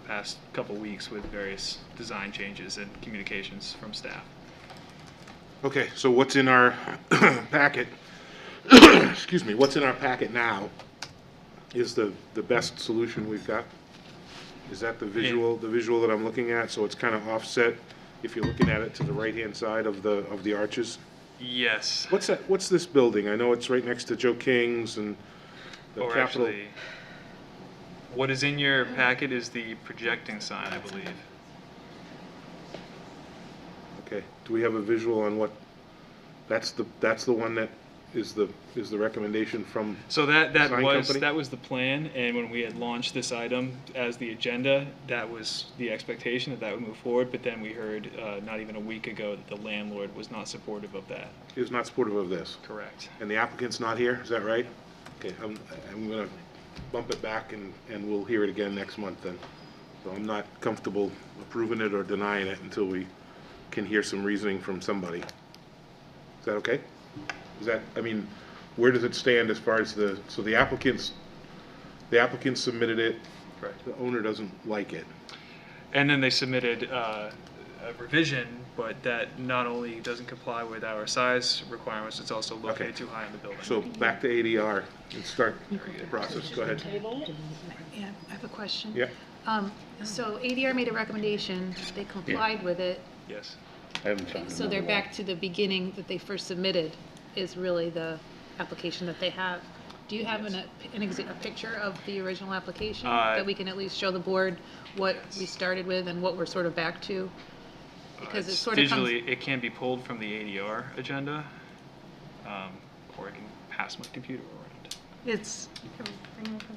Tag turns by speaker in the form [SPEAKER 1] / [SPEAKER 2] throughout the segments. [SPEAKER 1] past couple weeks with various design changes and communications from staff.
[SPEAKER 2] Okay, so what's in our packet, excuse me, what's in our packet now is the, the best solution we've got? Is that the visual, the visual that I'm looking at? So it's kind of offset, if you're looking at it to the right-hand side of the, of the arches?
[SPEAKER 1] Yes.
[SPEAKER 2] What's that, what's this building? I know it's right next to Joe King's and the
[SPEAKER 1] Or
[SPEAKER 2] Capitol.
[SPEAKER 1] Oh, actually, what is in your packet is the projecting sign, I believe.
[SPEAKER 2] Okay, do we have a visual on what, that's the, that's the one that is the, is the recommendation from,
[SPEAKER 1] So that, that
[SPEAKER 2] Sign
[SPEAKER 1] was,
[SPEAKER 2] company?
[SPEAKER 1] that was the plan, and when we had launched this item as the agenda, that was the expectation that that would move forward, but then we heard, uh, not even a week ago that the landlord was not supportive of that.
[SPEAKER 2] is not supportive of this?
[SPEAKER 1] Correct.
[SPEAKER 2] And the applicant's not here, is that right? Okay, I'm, I'm gonna bump it back and, and we'll hear it again next month then. So I'm not comfortable approving it or denying it until we can hear some reasoning from somebody. Is that okay? Is that, I mean, where does it stand as far as the, so the applicants, the applicant submitted it,
[SPEAKER 1] Correct.
[SPEAKER 2] the owner doesn't like it.
[SPEAKER 1] And then they submitted uh, a revision, but that not only doesn't comply with our size requirements, it's also located too high in the building.
[SPEAKER 2] So back to ADR and start the process, go ahead.
[SPEAKER 3] Yeah, I have a question.
[SPEAKER 2] Yeah,
[SPEAKER 3] Um, so ADR made a recommendation, they complied with it,
[SPEAKER 1] Yes.
[SPEAKER 4] I haven't found
[SPEAKER 3] so they're
[SPEAKER 4] another one.
[SPEAKER 3] back to the beginning that they first submitted is really the application that they have. Do you have an, an exa- a picture of the original application
[SPEAKER 1] Uh,
[SPEAKER 3] that we can at least show the board what we
[SPEAKER 1] yes.
[SPEAKER 3] started with and what we're sort of back to? Because it sort of comes-
[SPEAKER 1] Digitally, it can be pulled from the ADR agenda, um, or I can pass my computer around.
[SPEAKER 3] It's,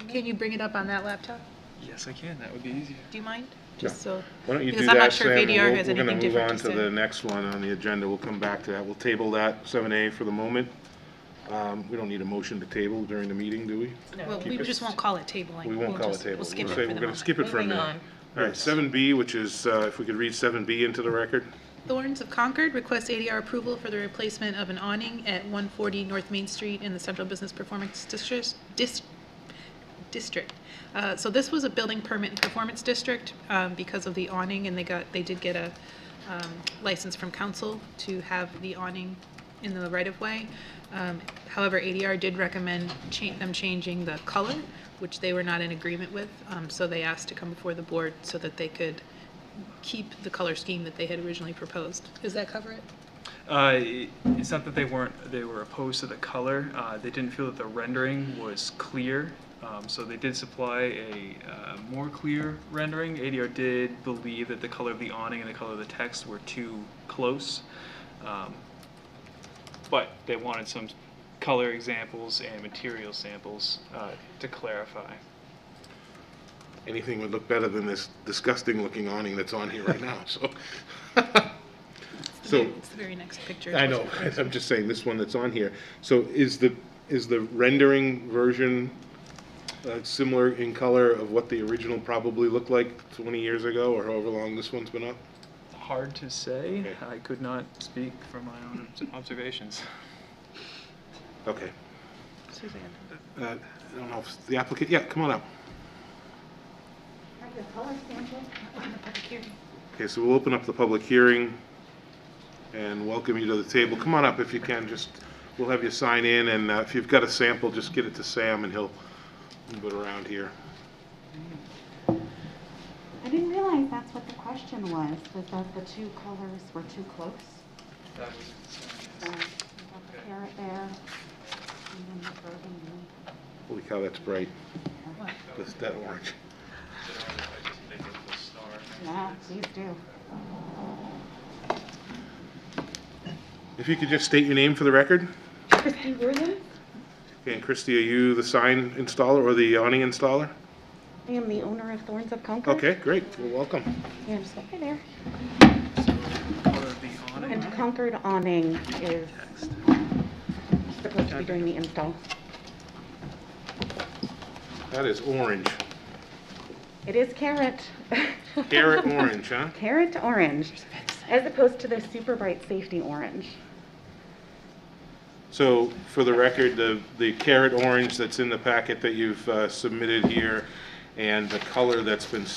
[SPEAKER 3] can you bring it up on that laptop?
[SPEAKER 1] Yes, I can, that would be easier.
[SPEAKER 3] Do you mind? Just so.
[SPEAKER 2] Why don't you do
[SPEAKER 3] Because I'm not
[SPEAKER 2] that,
[SPEAKER 3] sure
[SPEAKER 2] Sam, and
[SPEAKER 3] if ADR
[SPEAKER 2] we'll-
[SPEAKER 3] has
[SPEAKER 2] we're gonna
[SPEAKER 3] anything
[SPEAKER 2] move
[SPEAKER 3] different
[SPEAKER 2] on
[SPEAKER 3] to
[SPEAKER 2] to
[SPEAKER 3] say.
[SPEAKER 2] the next one on the agenda, we'll come back to that, we'll table that, seven A for the moment. Um, we don't need a motion to table during the meeting, do we?
[SPEAKER 5] Well, we
[SPEAKER 2] it-
[SPEAKER 5] just won't call it tabling.
[SPEAKER 2] We won't
[SPEAKER 5] We'll
[SPEAKER 2] call it
[SPEAKER 5] just-
[SPEAKER 2] table,
[SPEAKER 5] We'll
[SPEAKER 2] we'll
[SPEAKER 5] skip
[SPEAKER 2] say
[SPEAKER 5] it for
[SPEAKER 2] we're
[SPEAKER 5] the
[SPEAKER 2] gonna
[SPEAKER 5] moment.
[SPEAKER 2] skip it for a minute. All right, seven B, which is, uh, if we could read seven B into the record,
[SPEAKER 3] Thorns of Concord requests ADR approval for the replacement of an awning at 140 North Main Street in the Central Business Performance District. dis- District. Uh, So this was a building permit and performance district um, because of the awning, and they got, they did get a um, license from council to have the awning in the right-of-way. Um, However, ADR did recommend cha- them changing the color, which they were not in agreement with, um, so they asked to come before the board so that they could keep the color scheme that they had originally proposed. Does that cover it?
[SPEAKER 1] Uh, it- It's not that they weren't, they were opposed to the color, uh, they didn't feel that the rendering was clear, um, so they did supply a uh, more clear rendering. ADR did believe that the color of the awning and the color of the text were too close, um, but they wanted some color examples and material samples uh, to clarify.
[SPEAKER 2] anything would look better than this disgusting-looking awning that's on here right now, so. So,
[SPEAKER 3] It's the very next picture.
[SPEAKER 2] I know, I'm just saying, this one that's on here, so is the, is the rendering version uh, similar in color of what the original probably looked like twenty years ago, or however long this one's been up?
[SPEAKER 1] Hard to say,
[SPEAKER 2] Okay.
[SPEAKER 1] I could not speak from my own observations.
[SPEAKER 2] Okay. Uh, I don't know if the applicant, yeah, come on up.
[SPEAKER 6] Have the color sample on the public hearing.
[SPEAKER 2] Okay, so we'll open up the public hearing and welcome you to the table. Come on up if you can, just, we'll have you sign in, and uh, if you've got a sample, just get it to Sam and he'll move it around here.
[SPEAKER 6] I didn't realize that's what the question was, was that the two colors were too close.
[SPEAKER 1] That was a
[SPEAKER 6] So
[SPEAKER 1] concern, yes.
[SPEAKER 6] we got the carrot there, and then the burgundy.
[SPEAKER 2] Holy cow, that's bright. That's that orange.
[SPEAKER 6] Yeah, please do.
[SPEAKER 2] If you could just state your name for the record?
[SPEAKER 6] Christy Worthing?
[SPEAKER 2] Okay, and Christie, are you the sign installer or the awning installer?
[SPEAKER 6] I am the owner of Thorns of Concord.
[SPEAKER 2] Okay, great, well, welcome.
[SPEAKER 6] Yeah, just over there.
[SPEAKER 1] Color of the awning.
[SPEAKER 6] And Concord awning is supposed to be doing the install.
[SPEAKER 2] That is orange,
[SPEAKER 6] It is carrot.
[SPEAKER 2] carrot orange, huh?
[SPEAKER 6] Carrot orange, as opposed to the super bright safety orange.
[SPEAKER 2] So, for the record, the, the carrot orange that's in the packet that you've uh, submitted here and the color that's been